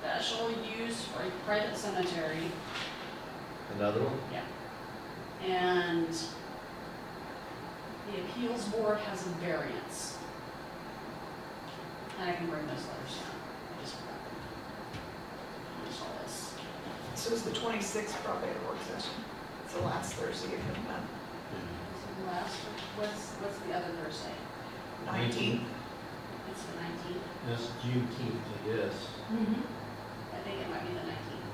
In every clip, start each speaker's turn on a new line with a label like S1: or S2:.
S1: special use for a private cemetery,
S2: Another one?
S1: and the appeals board has a variance. And I can bring those letters down, I just forgot them. Here's all this.
S3: So it's the 26th probably the work session. It's the last Thursday of the month.
S1: So the last, what's, what's the other Thursday?
S3: Nineteenth.
S1: It's the nineteenth?
S2: That's Juneteenth, I guess.
S1: Mm-hmm. I think it might be the nineteenth.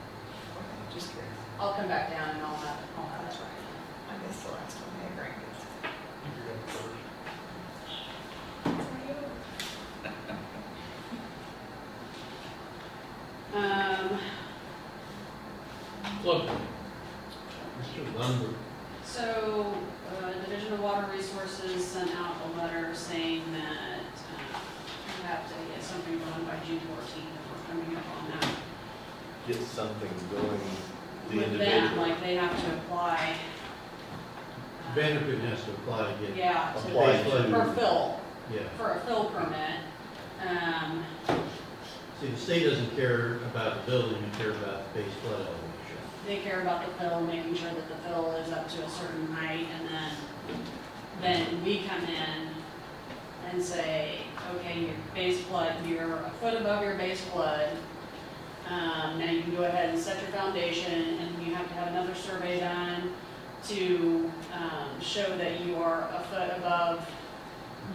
S3: Just curious.
S1: I'll come back down and I'll have, I'll have it right.
S3: I missed the last one, I agree.
S1: Um,
S2: Look, Mr. Lumber,
S1: So, uh, Division of Water Resources sent out a letter saying that uh, we have to get something done by June 14th, if we're coming up on that.
S2: get something going, the
S1: With them,
S2: individual.
S1: like, they have to apply. uh,
S2: Benefit has to apply to get,
S1: Yeah, to-
S2: apply
S1: for
S2: to,
S1: fill,
S2: yeah.
S1: for a fill permit. Um,
S2: See, the state doesn't care about the building, they care about the base flood elevation.
S1: They care about the fill, making sure that the fill is up to a certain height, and then, then we come in and say, okay, your base flood, you're a foot above your base flood. Um, now you can go ahead and set your foundation, and you have to have another survey done to, um, show that you are a foot above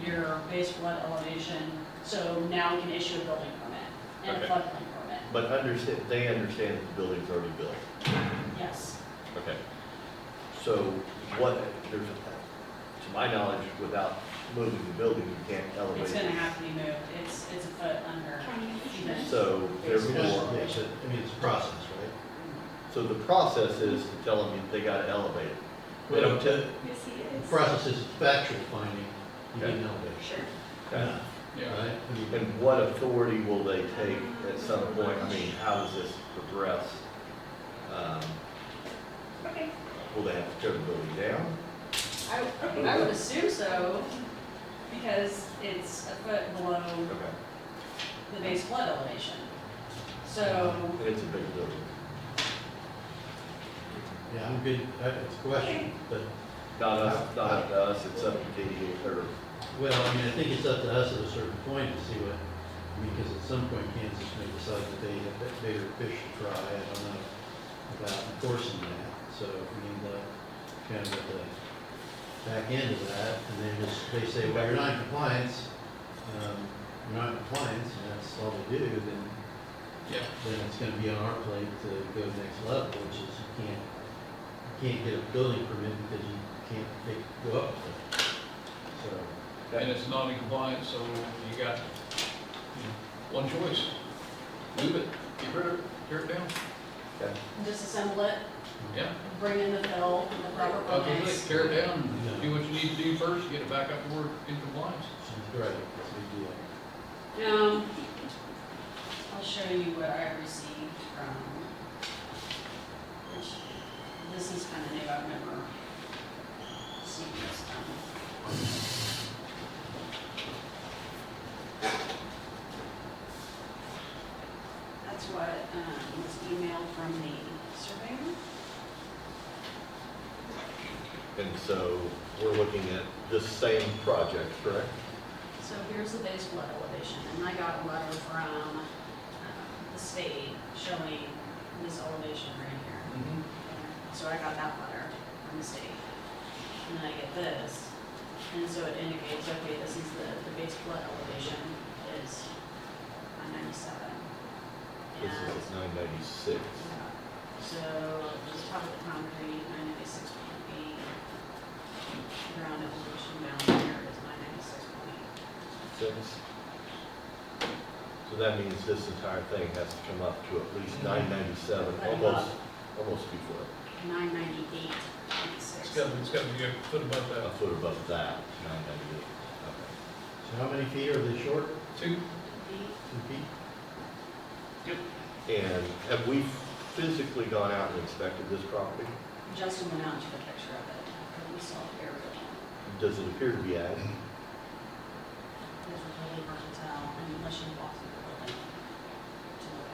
S1: your base flood elevation, so now we can issue a building permit and a
S4: Okay.
S1: floodplain permit,
S4: But understand, they understand that the building's already built.
S1: yes.
S4: Okay. So what, there's, a- to my knowledge, without moving the building, you can't elevate.
S1: It's
S4: it.
S1: gonna have to be moved, it's, it's a foot under. even.
S4: So
S2: Just-
S4: therefore,
S2: yeah, so, I mean, it's a process, right?
S4: so the process is to tell them they gotta elevate it. They don't tell,
S3: Yes, he
S2: The
S3: is.
S2: process is factual finding, you need an elevation,
S3: Sure.
S4: Okay.
S2: right? I mean,
S4: and what authority will they take at some point? I mean, how does this progress? Um,
S3: Okay.
S4: Will they have to tear the building down?
S1: I, I would assume so, because it's a foot below
S4: Okay.
S1: the base flood elevation. So,
S4: It's a big building.
S2: Yeah, I'm good, I- it's a question, but,
S4: Not us, not up to us, it's up to DDA or
S2: well, I mean, I think it's up to us at a certain point to see what, I mean, because at some point Kansas may decide that they have bit bigger fish to fry, I don't know about enforcing that, so we need to kind of get the back end of that, and then just, they say, well, you're not in compliance, um, you're not in compliance, and that's all they do, then
S5: Yeah.
S2: then it's gonna be on our plate to go next level, which is you can't, you can't get a building permit because you can't take, go up with it. So,
S5: And it's not in compliance, so you got, you know, one choice. Move it, get rid of it, tear it down.
S1: disassemble it,
S5: Yeah.
S1: bring in the fill, the proper
S5: Other
S1: permits.
S5: than tear it down, do what you need to do first, get it back up to where it's in compliance.
S2: she's right, it's a big deal.
S1: Um, I'll show you what I received from, which, this is kind of new, I've never seen this done. That's what, um, was emailed from the surveyor.
S4: And so we're looking at this same project, correct?
S1: So here's the base flood elevation, and I got a letter from, um, the state showing this elevation right here.
S4: Mm-hmm.
S1: So I got that letter from the state. And then I get this. And so it indicates, okay, this is the, the base flood elevation is on ninety-seven.
S4: This
S1: And,
S4: is nine ninety-six.
S1: yeah, so the top of the concrete, nine ninety-six point eight. Ground elevation down there is nine ninety-six point eight.
S4: So that means this entire thing has to come up to at least nine ninety-seven,
S1: Right above.
S4: almost, almost before,
S1: Nine ninety-eight point six.
S5: It's gotta, it's gotta be a foot above
S4: a
S5: that.
S4: foot above that, nine ninety-eight.
S2: So how many feet are they short?
S5: Two,
S2: Two feet?
S4: Okay. And have we physically gone out and inspected this property?
S1: Justin went out and took a picture of it, and we saw the area. It
S4: Does it appear to be ag?
S1: was really hard to tell unless you walked through the